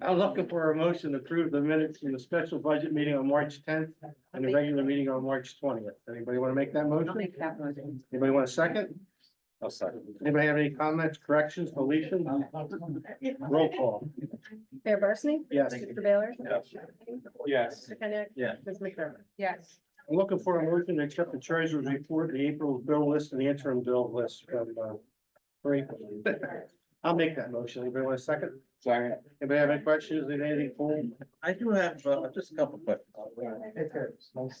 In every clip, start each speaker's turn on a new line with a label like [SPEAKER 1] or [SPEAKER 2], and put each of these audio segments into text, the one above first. [SPEAKER 1] I'm looking for a motion to approve the minutes from the special budget meeting on March tenth and the regular meeting on March twentieth. Anybody want to make that
[SPEAKER 2] I'll
[SPEAKER 1] motion?
[SPEAKER 2] make that motion.
[SPEAKER 1] Anybody want a second?
[SPEAKER 3] I'll second.
[SPEAKER 1] Anybody have any comments, corrections, deletions? Roll call.
[SPEAKER 4] Mayor Barsney?
[SPEAKER 1] Yes.
[SPEAKER 4] Mr. Baylor?
[SPEAKER 3] Yes. Yes.
[SPEAKER 4] Mr. Kenneth?
[SPEAKER 1] Yes.
[SPEAKER 4] Ms. McDermott?
[SPEAKER 2] Yes,
[SPEAKER 1] I'm looking for a motion to accept the treasurer's report, the April bill list and the interim bill list from, uh, for April. I'll make that motion. Anybody want a second?
[SPEAKER 3] Second.
[SPEAKER 1] Anybody have any questions? Anything for?
[SPEAKER 5] I do have uh, just a couple questions.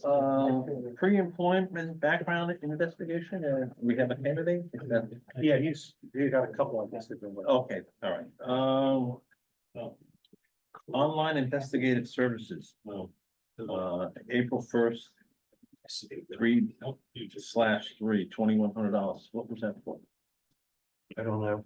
[SPEAKER 3] Um,
[SPEAKER 5] Uh, Pre-employment background investigation, uh, we have a candidate? Is that-
[SPEAKER 1] Yeah, he's, he got a couple of these that been with.
[SPEAKER 5] Okay, all right. Um, Online investigative services. Uh, April first, three slash three, twenty-one hundred dollars. What was that for?
[SPEAKER 1] Oh, I don't know.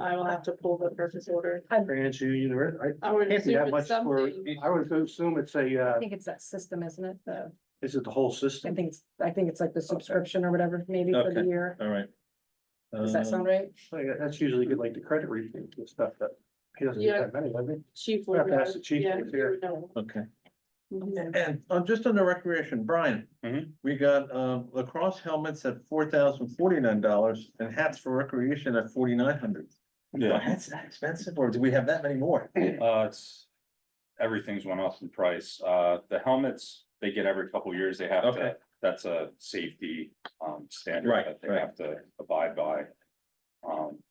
[SPEAKER 2] I will have to pull the purchase order.
[SPEAKER 1] Rancho University.
[SPEAKER 2] I would
[SPEAKER 1] Can't be
[SPEAKER 2] assume
[SPEAKER 1] that much
[SPEAKER 2] it's
[SPEAKER 1] for,
[SPEAKER 2] something.
[SPEAKER 1] I would assume it's a,
[SPEAKER 4] I
[SPEAKER 1] uh,
[SPEAKER 4] think it's that system, isn't it? The,
[SPEAKER 1] is it the whole
[SPEAKER 4] I
[SPEAKER 1] system?
[SPEAKER 4] think, it's I think it's like the subscription or whatever, maybe for the
[SPEAKER 5] Okay.
[SPEAKER 4] year.
[SPEAKER 5] All right. Um,
[SPEAKER 4] Does that sound right?
[SPEAKER 1] Like, That's usually good, like the credit review and stuff, but he doesn't get that many, I mean.
[SPEAKER 2] Chief
[SPEAKER 1] We'll
[SPEAKER 2] would
[SPEAKER 1] have to
[SPEAKER 2] know.
[SPEAKER 1] ask the chief
[SPEAKER 2] Yeah,
[SPEAKER 1] if he's here.
[SPEAKER 2] he would know.
[SPEAKER 5] Uh, Okay.
[SPEAKER 2] Mhm.
[SPEAKER 5] And uh, just on the recreation, Brian.
[SPEAKER 3] Mhm.
[SPEAKER 5] We got um, lacrosse helmets at four thousand forty-nine dollars and hats for recreation at forty-nine hundred. Are
[SPEAKER 3] Yeah,
[SPEAKER 5] hats that expensive or do we have that many more?
[SPEAKER 3] uh, it's, everything's went up in price. Uh, the helmets, they get every couple of years, they have
[SPEAKER 5] Okay.
[SPEAKER 3] to, that's a safety, um, standard
[SPEAKER 5] Right,
[SPEAKER 3] that they
[SPEAKER 5] right.
[SPEAKER 3] have to abide by. Um,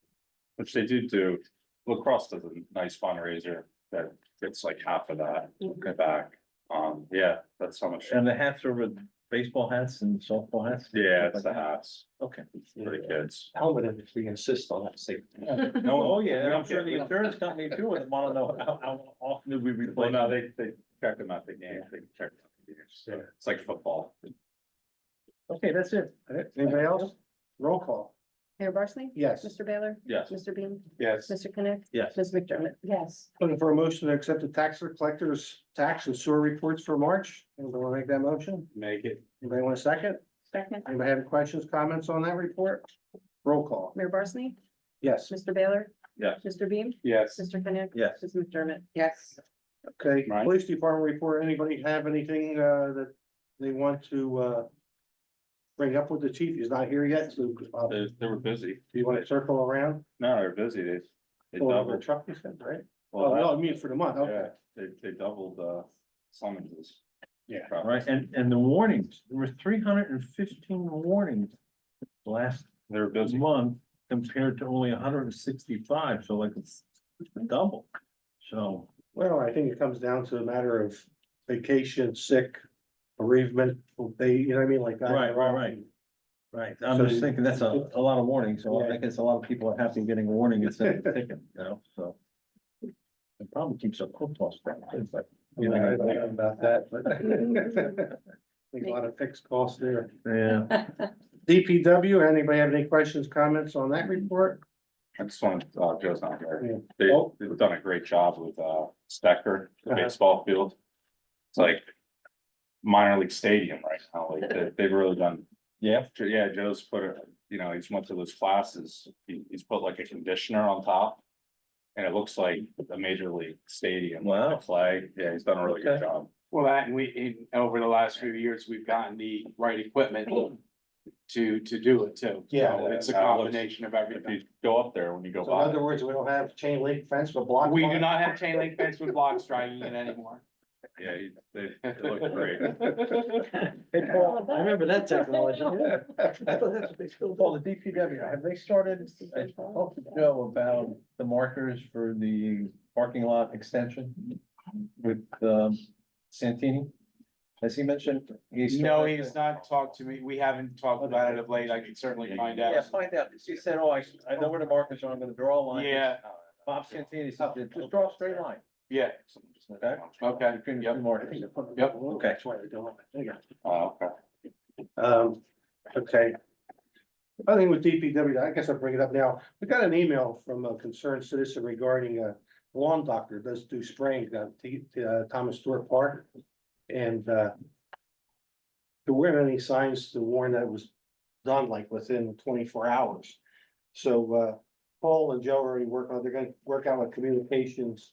[SPEAKER 3] which they do do. Lacrosse does a nice fundraiser that gets like half of that back. Um, yeah, that's how much.
[SPEAKER 5] And the hats are with baseball hats and softball hats?
[SPEAKER 3] Yeah, it's the hats
[SPEAKER 5] Okay.
[SPEAKER 3] for the kids.
[SPEAKER 1] Helmet if we insist on that safety.
[SPEAKER 3] No,
[SPEAKER 5] Oh, yeah, and I'm
[SPEAKER 3] we don't
[SPEAKER 5] sure
[SPEAKER 3] get-
[SPEAKER 5] the insurance company too would wanna know how, how often do we
[SPEAKER 3] Well,
[SPEAKER 5] replace?
[SPEAKER 3] no, they, they check them out, the game, they check. them out the games. So It's like football.
[SPEAKER 5] Okay, that's it.
[SPEAKER 1] Anybody else? Roll call.
[SPEAKER 4] Mayor Barsney?
[SPEAKER 1] Yes.
[SPEAKER 4] Mr. Baylor?
[SPEAKER 3] Yes.
[SPEAKER 4] Mr. Bean?
[SPEAKER 3] Yes.
[SPEAKER 4] Mr. Kenneth?
[SPEAKER 5] Yes.
[SPEAKER 4] Ms. McDermott?
[SPEAKER 2] Yes,
[SPEAKER 1] Looking for a motion to accept the tax collector's tax and sewer reports for March. Anybody want to make that motion?
[SPEAKER 3] Make it.
[SPEAKER 1] Anybody want a second?
[SPEAKER 2] second,
[SPEAKER 1] Anybody have any questions, comments on that report? Roll call.
[SPEAKER 4] Mayor Barsney?
[SPEAKER 1] Yes.
[SPEAKER 4] Mr. Baylor?
[SPEAKER 3] Yes.
[SPEAKER 4] Mr. Bean?
[SPEAKER 3] Yes.
[SPEAKER 4] Mr. Kenneth?
[SPEAKER 5] Yes.
[SPEAKER 4] Ms. McDermott?
[SPEAKER 2] yes.
[SPEAKER 1] Okay,
[SPEAKER 3] Right.
[SPEAKER 1] police department report, anybody have anything uh that they want to uh? Bring up with the chief, he's not here yet, so uh, do
[SPEAKER 3] They, they were busy.
[SPEAKER 1] you want to circle around?
[SPEAKER 3] No, they're busy. They, they
[SPEAKER 1] Pull over
[SPEAKER 3] doubled.
[SPEAKER 1] truck, you said, right?
[SPEAKER 3] well,
[SPEAKER 1] Oh, no,
[SPEAKER 3] that-
[SPEAKER 1] I mean for the month, okay.
[SPEAKER 3] Yeah, they, they doubled, uh, summonses.
[SPEAKER 1] Yeah.
[SPEAKER 5] All right, and, and the warnings, there were three hundred and fifteen warnings last
[SPEAKER 3] They were busy.
[SPEAKER 5] month compared to only hundred and sixty-five, so like it's double. So,
[SPEAKER 1] Well, I think it comes down to a matter of vacation, sick, bereavement, they, you know what I mean, like. I-
[SPEAKER 5] Right, right, right. right, I'm just thinking that's a, a lot of warnings, so I guess a lot of people are happy getting a warning instead of a ticket, you know, so. It probably keeps a cook loss down, too, but.
[SPEAKER 1] You know, I don't know about that, but. Think a lot of fixed costs there.
[SPEAKER 5] Yeah,
[SPEAKER 1] DPW, anybody have any questions, comments on that report?
[SPEAKER 3] I just wanted, uh, Joe's not here.
[SPEAKER 1] Yeah.
[SPEAKER 3] They,
[SPEAKER 1] Oh.
[SPEAKER 3] they've done a great job with, uh, Stecker, the
[SPEAKER 1] Uh-huh.
[SPEAKER 3] baseball field. It's like minor league stadium right now. Like, they, they've really done.
[SPEAKER 5] Yeah.
[SPEAKER 3] Jo- Yeah, Joe's put, a- you know, he's went to those classes. He, he's put like a conditioner on top. And it looks like a major league stadium. like the
[SPEAKER 5] Wow.
[SPEAKER 3] Flag. Yeah, he's done a really good
[SPEAKER 5] Okay.
[SPEAKER 3] job.
[SPEAKER 6] Well, that and we, and over the last few years, we've gotten the right equipment to, to do it too.
[SPEAKER 1] Yeah.
[SPEAKER 6] So It's a
[SPEAKER 3] That looks-
[SPEAKER 6] combination of
[SPEAKER 3] If
[SPEAKER 6] everything.
[SPEAKER 3] you go up there when you go
[SPEAKER 1] So in
[SPEAKER 3] by.
[SPEAKER 1] other words, we don't have chain link fence with block.
[SPEAKER 6] We do
[SPEAKER 1] fence?
[SPEAKER 6] not have chain link fence with blocks dragging it anymore.
[SPEAKER 3] Yeah, he- they, they look great.
[SPEAKER 5] hey, Paul,
[SPEAKER 2] Mm-hmm.
[SPEAKER 5] I remember that technology. I thought that's what they still call the DPW. Have they started, I talked to Joe about the markers for the parking lot extension with, um, Santini? Has he mentioned?
[SPEAKER 6] No, he has not talked to me. We haven't talked about it of late. I can certainly find
[SPEAKER 5] Yeah,
[SPEAKER 6] out.
[SPEAKER 5] find out. She said, oh, I, I know where the markers are. I'm gonna draw a line.
[SPEAKER 6] Yeah,
[SPEAKER 5] Bob Santini said, just draw a straight line.
[SPEAKER 6] yeah,
[SPEAKER 5] Okay.
[SPEAKER 6] okay,
[SPEAKER 5] Between the
[SPEAKER 6] Yep.
[SPEAKER 5] two
[SPEAKER 1] I
[SPEAKER 5] markers.
[SPEAKER 1] think they put-
[SPEAKER 6] Yep.
[SPEAKER 5] Okay.
[SPEAKER 1] That's why they don't. There you
[SPEAKER 3] Oh, okay.
[SPEAKER 1] go. Um, okay. I think with DPW, I guess I'll bring it up now. We got an email from a concerned citizen regarding a lawn doctor does do spraying down T, uh, Thomas Stewart Park. And, uh, there weren't any signs to warn that it was done like within twenty-four hours. So, uh, Paul and Joe are already working on, they're gonna work out with communications